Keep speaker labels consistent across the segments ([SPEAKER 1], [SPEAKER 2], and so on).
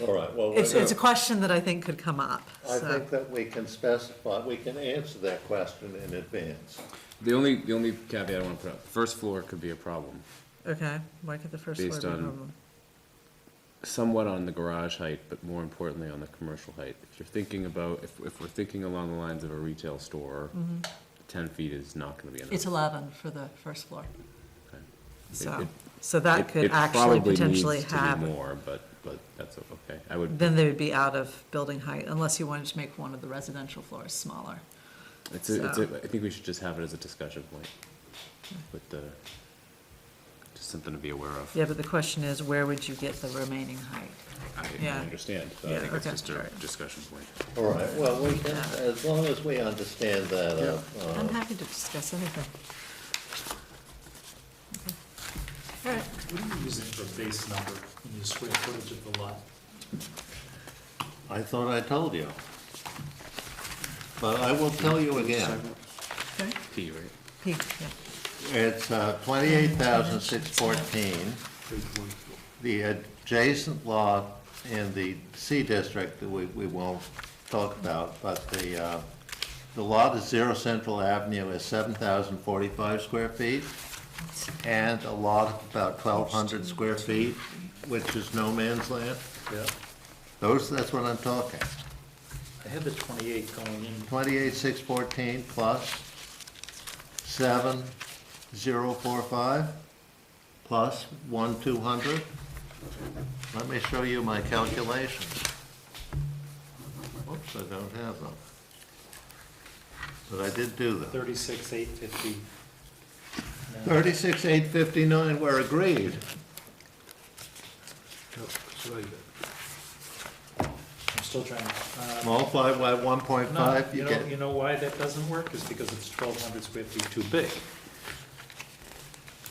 [SPEAKER 1] All right, well,
[SPEAKER 2] It's,
[SPEAKER 1] we're
[SPEAKER 2] it's a
[SPEAKER 1] gonna-
[SPEAKER 2] question that I think could come up,
[SPEAKER 1] I
[SPEAKER 2] so.
[SPEAKER 1] think that we can specify, we can answer that question in advance.
[SPEAKER 3] The only, the only caveat I wanna put up, first floor could be a problem,
[SPEAKER 2] Okay, why could the first floor
[SPEAKER 3] Based
[SPEAKER 2] be a
[SPEAKER 3] on-
[SPEAKER 2] problem?
[SPEAKER 3] somewhat on the garage height, but more importantly on the commercial height. If you're thinking about, if, if we're thinking along the lines of a retail store, ten feet is not gonna be enough.
[SPEAKER 2] Mm-hmm. It's eleven for the first floor.
[SPEAKER 3] Okay.
[SPEAKER 2] So,
[SPEAKER 3] it-
[SPEAKER 2] so
[SPEAKER 3] It-
[SPEAKER 2] that could
[SPEAKER 3] it
[SPEAKER 2] actually
[SPEAKER 3] probably needs
[SPEAKER 2] potentially
[SPEAKER 3] to be
[SPEAKER 2] have,
[SPEAKER 3] More, but, but that's okay, I would,
[SPEAKER 2] then they would be out of building height unless you wanted to make one of the residential floors smaller.
[SPEAKER 3] it's, a- it's, a-
[SPEAKER 2] so-
[SPEAKER 3] I think we should just have it as a discussion point with the, just something to be aware of.
[SPEAKER 2] Yeah, but the question is, where would you get the remaining height?
[SPEAKER 3] I I
[SPEAKER 2] Yeah.
[SPEAKER 3] understand, so I
[SPEAKER 2] Yeah,
[SPEAKER 3] think it's
[SPEAKER 2] okay,
[SPEAKER 3] just a
[SPEAKER 2] alright.
[SPEAKER 3] discussion point.
[SPEAKER 1] All right, well, we can, as long as we understand that, uh,
[SPEAKER 2] I'm
[SPEAKER 1] uh,
[SPEAKER 2] happy to discuss anything. Okay. All right,
[SPEAKER 4] What are you using for base number in your square footage of the lot?
[SPEAKER 1] I thought I told you. But I will tell you again,
[SPEAKER 2] okay,
[SPEAKER 3] P, right?
[SPEAKER 2] P, yeah.
[SPEAKER 1] it's uh, twenty-eight thousand six fourteen. The adjacent lot in the C district that we, we won't talk about, but the, uh, the lot at Zero Central Avenue is seven thousand forty-five square feet and a lot of about twelve hundred square feet, which is no man's land.
[SPEAKER 4] Yeah.
[SPEAKER 1] Those, that's what I'm talking.
[SPEAKER 4] I had the twenty-eight going in.
[SPEAKER 1] Twenty-eight, six fourteen plus seven, zero, four, five, plus one, two hundred. Let me show you my calculations. Whoops, I don't have them. But I did do them.
[SPEAKER 4] Thirty-six, eight fifty.
[SPEAKER 1] Thirty-six, eight fifty-nine, we're agreed.
[SPEAKER 4] Oh, I'm still trying to. uh,
[SPEAKER 1] Multiply by one point
[SPEAKER 4] No,
[SPEAKER 1] five,
[SPEAKER 4] you
[SPEAKER 1] you
[SPEAKER 4] know, you
[SPEAKER 1] get,
[SPEAKER 4] know why that doesn't work is because it's twelve hundred square feet too big.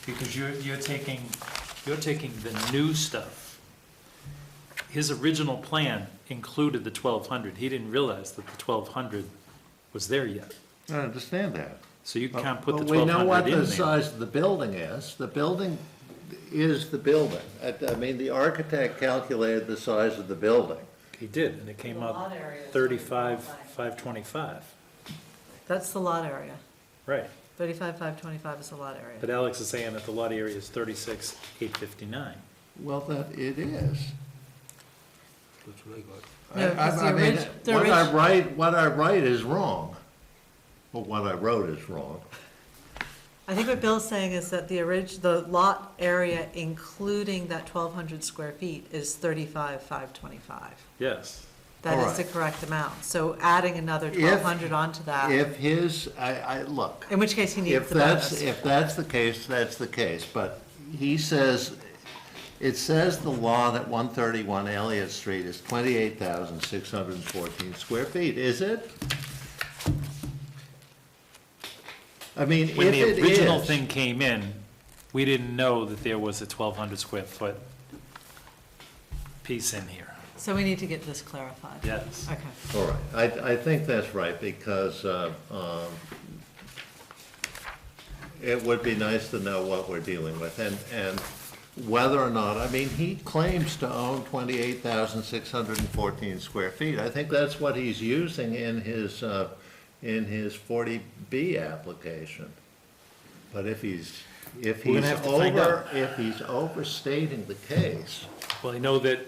[SPEAKER 4] Because you're, you're taking, you're taking the new stuff. His original plan included the twelve hundred. He didn't realize that the twelve hundred was there yet.
[SPEAKER 1] I understand that.
[SPEAKER 4] So you can't put the
[SPEAKER 1] But we
[SPEAKER 4] twelve
[SPEAKER 1] know what
[SPEAKER 4] hundred in
[SPEAKER 1] the
[SPEAKER 4] there.
[SPEAKER 1] size of the building is. The building is the building. I, I mean, the architect calculated the size of the building.
[SPEAKER 4] He did, and it came out thirty-five, five twenty-five,
[SPEAKER 2] That's the lot area.
[SPEAKER 4] right.
[SPEAKER 2] Thirty-five, five twenty-five is the lot
[SPEAKER 4] But
[SPEAKER 2] area.
[SPEAKER 4] Alex is saying that the lot area is thirty-six, eight fifty-nine.
[SPEAKER 1] Well, that, it is.
[SPEAKER 2] No,
[SPEAKER 1] I-
[SPEAKER 2] 'cause
[SPEAKER 1] I- I
[SPEAKER 2] the
[SPEAKER 1] mean,
[SPEAKER 2] orig- the
[SPEAKER 1] What I
[SPEAKER 2] orig-
[SPEAKER 1] write, what I write is wrong. Well, what I wrote is wrong.
[SPEAKER 2] I think what Bill's saying is that the orig, the lot area, including that twelve hundred square feet, is thirty-five, five twenty-five.
[SPEAKER 4] Yes.
[SPEAKER 2] That is the
[SPEAKER 1] Alright.
[SPEAKER 2] correct amount. So adding another
[SPEAKER 1] If-
[SPEAKER 2] twelve hundred onto that,
[SPEAKER 1] If his, I, I, look,
[SPEAKER 2] in which case he needs
[SPEAKER 1] if
[SPEAKER 2] the
[SPEAKER 1] that's,
[SPEAKER 2] bonus.
[SPEAKER 1] if that's the case, that's the case. But he says, it says the lot at one thirty-one Elliott Street is twenty-eight thousand six hundred and fourteen square feet, is it? I mean, if
[SPEAKER 4] When
[SPEAKER 1] it
[SPEAKER 4] the original
[SPEAKER 1] is,
[SPEAKER 4] thing came in, we didn't know that there was a twelve hundred square foot piece in here.
[SPEAKER 2] So we need to get this clarified.
[SPEAKER 4] Yes.
[SPEAKER 2] Okay,
[SPEAKER 1] all right, I, I think that's right, because, uh, um, it would be nice to know what we're dealing with, and, and whether or not, I mean, he claims to own twenty-eight thousand six hundred and fourteen square feet. I think that's what he's using in his, uh, in his forty B application. But if he's, if
[SPEAKER 4] We're
[SPEAKER 1] he's
[SPEAKER 4] gonna have to find
[SPEAKER 1] over, if he's overstating the case,
[SPEAKER 4] Well, I know that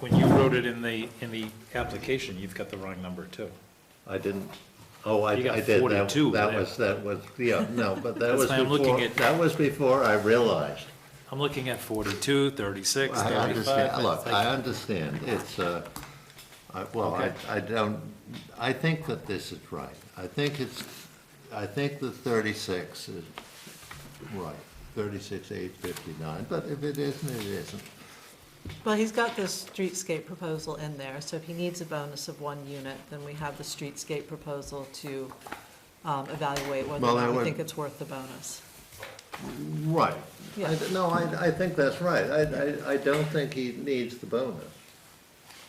[SPEAKER 4] when you wrote it in the, in the application, you've got the wrong number too.
[SPEAKER 1] I didn't, oh, I, I
[SPEAKER 4] You
[SPEAKER 1] did.
[SPEAKER 4] got
[SPEAKER 1] that-
[SPEAKER 4] 42
[SPEAKER 1] That
[SPEAKER 4] there.
[SPEAKER 1] was, that was, yeah, no, but that
[SPEAKER 4] That's
[SPEAKER 1] was
[SPEAKER 4] why I'm looking
[SPEAKER 1] before,
[SPEAKER 4] at-
[SPEAKER 1] that was before I realized.
[SPEAKER 4] I'm looking at 42, 36,
[SPEAKER 1] I
[SPEAKER 4] 35.
[SPEAKER 1] understand, look,
[SPEAKER 4] It's like-
[SPEAKER 1] I understand, it's, uh, I- well, I,
[SPEAKER 4] Okay.
[SPEAKER 1] I don't, I think that this is right. I think it's, I think the thirty-six is right, thirty-six, eight fifty-nine, but if it isn't, it isn't.
[SPEAKER 2] well, he's got this streetscape proposal in there, so if he needs a bonus of one unit, then we have the streetscape proposal to um, evaluate whether
[SPEAKER 1] Well,
[SPEAKER 2] or
[SPEAKER 1] I
[SPEAKER 2] not we
[SPEAKER 1] would-
[SPEAKER 2] think it's worth the bonus.
[SPEAKER 1] Right.
[SPEAKER 2] Yeah.
[SPEAKER 1] I d- No, I, I think that's right. I, I, I don't think he needs the bonus,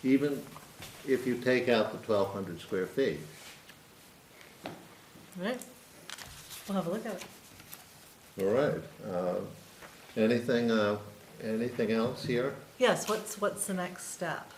[SPEAKER 1] even if you take out the twelve hundred square feet.
[SPEAKER 2] All right, we'll have a look at it.
[SPEAKER 1] All right. Uh, Anything, uh, anything else here?
[SPEAKER 2] Yes, what's, what's the next step?